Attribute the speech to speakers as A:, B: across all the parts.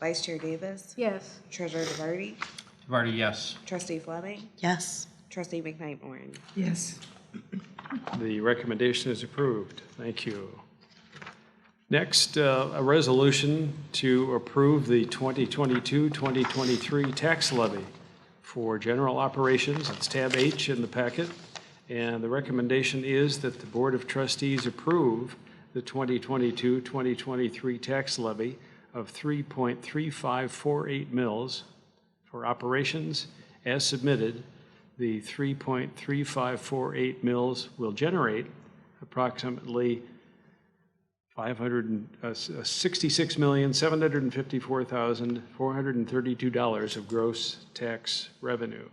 A: Vice Chair Davis,
B: Yes.
A: Treasurer DeVarty,
C: Vardy, yes.
A: Trustee Fleming,
D: Yes.
A: Trustee McKnight Morin.
E: Yes.
F: The recommendation is approved. Thank you. Next, uh, a resolution to approve the 2022-2023 tax levy for general operations. It's tab H in the packet. And the recommendation is that the Board of Trustees approve the 2022-2023 tax levy of 3.3548 mils for operations as submitted, the 3.3548 mills will generate approximately uh, 566754432 dollars of gross tax revenue.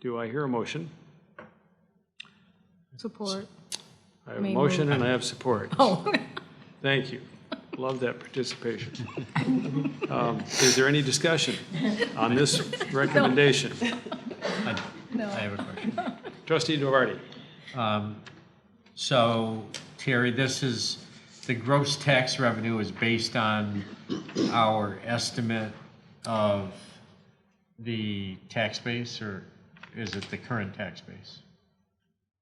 F: Do I hear a motion?
B: Support.
F: I have a
B: May
F: motion and I have support.
B: Oh,
F: Thank you. Love that participation. Um, Is there any discussion on this recommendation?
C: I I have a question.
F: Trustee DeVarty?
C: So Terry, this is, the gross tax revenue is based on our estimate of the tax base, or is it the current tax base?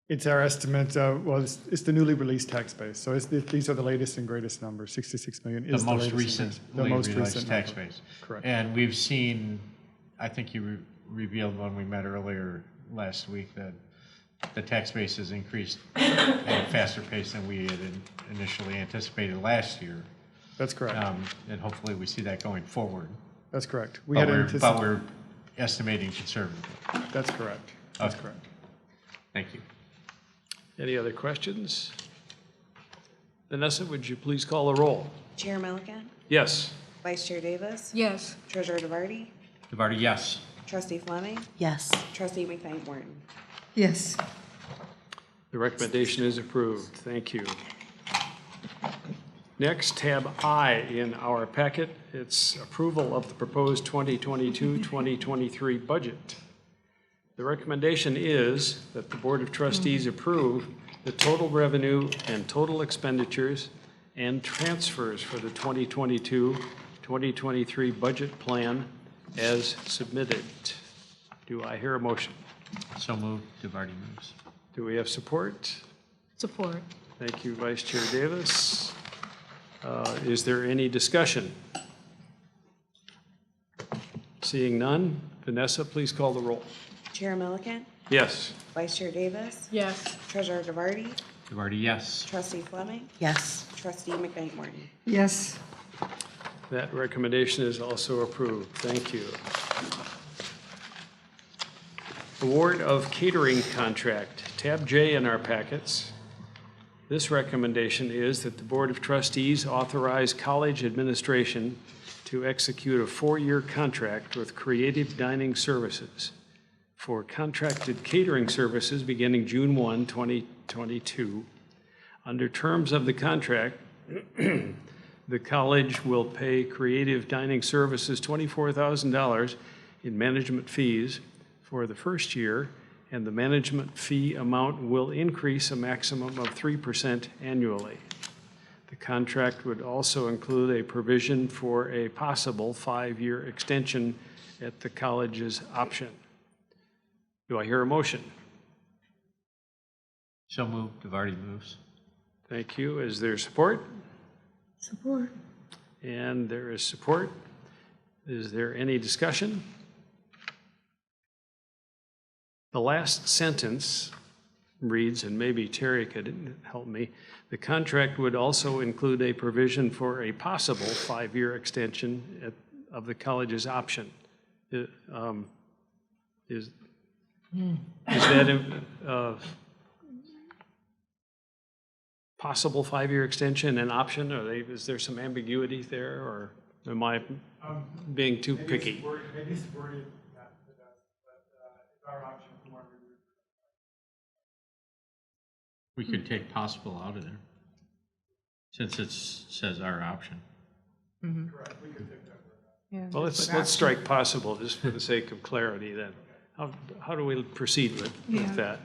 G: It's our estimate, uh, well, it's, it's the newly released tax base, so it's, the- these are the latest and greatest numbers, 66 million
C: The
G: is the
C: most
G: latest. and
C: recent,
G: greatest- the most
C: realized
G: recent
C: tax
G: number.
C: base.
G: Correct.
C: And we've seen, I think you re- revealed when we met earlier last week that the tax base has increased at a faster pace than we had in- initially anticipated last year.
G: That's correct,
C: Um, And hopefully we see that going forward.
G: that's correct. We
C: But
G: had
C: we're, but
G: anticipated,
C: we're estimating conservatively.
G: that's correct, that's
C: Okay.
G: correct.
C: Thank you.
F: Any other questions? Vanessa, would you please call the roll?
A: Chair Milliken,
F: Yes.
A: Vice Chair Davis,
B: yes.
A: Treasurer DeVarty,
C: DeVarty, yes.
A: Trustee Fleming,
D: Yes.
A: Trustee McKnight Morin.
E: Yes.
F: The recommendation is approved. Thank you. Next, tab I in our packet, it's approval of the proposed 2022-2023 budget. The recommendation is that the Board of Trustees approve the total revenue and total expenditures and transfers for the 2022-2023 budget plan as submitted. Do I hear a motion?
C: So moved, DeVarty moves.
F: Do we have support?
B: Support.
F: Thank you, Vice Chair Davis. Uh, Is there any discussion? Seeing none, Vanessa, please call the roll.
A: Chair Milliken,
F: Yes.
A: Vice Chair Davis,
B: Yes.
A: Treasurer DeVarty,
C: DeVarty, yes.
A: Trustee Fleming,
D: Yes.
A: Trustee McKnight Morin.
E: Yes.
F: That recommendation is also approved. Thank you. Award of catering contract, tab J in our packets. This recommendation is that the Board of Trustees authorize college administration to execute a four-year contract with Creative Dining Services for contracted catering services beginning June 1, 2022. Under terms of the contract, the college will pay Creative Dining Services $24,000 in management fees for the first year, and the management fee amount will increase a maximum of 3% annually. The contract would also include a provision for a possible five-year extension at the college's option. Do I hear a motion?
C: So moved, DeVarty moves.
F: Thank you. Is there support?
E: Support.
F: And there is support. Is there any discussion? The last sentence reads, and maybe Terry could help me, "The contract would also include a provision for a possible five-year extension at- of the college's option." Uh, um, Is is that a uh, possible five-year extension an option? Are they, is there some ambiguity there, or am I being too picky?
G: Um, Maybe it's worded not the best, but it's our option for one year.
C: We could take possible out of there, since it says our option.
B: Yeah.
F: Well, let's, let's strike possible, just for the sake of clarity, then. How, how do we proceed with, with that?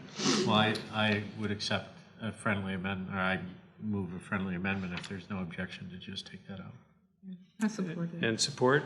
C: Well, I, I would accept a friendly amendment, or I move a friendly amendment if there's no objection to just take that out.
B: I support it.
F: And support?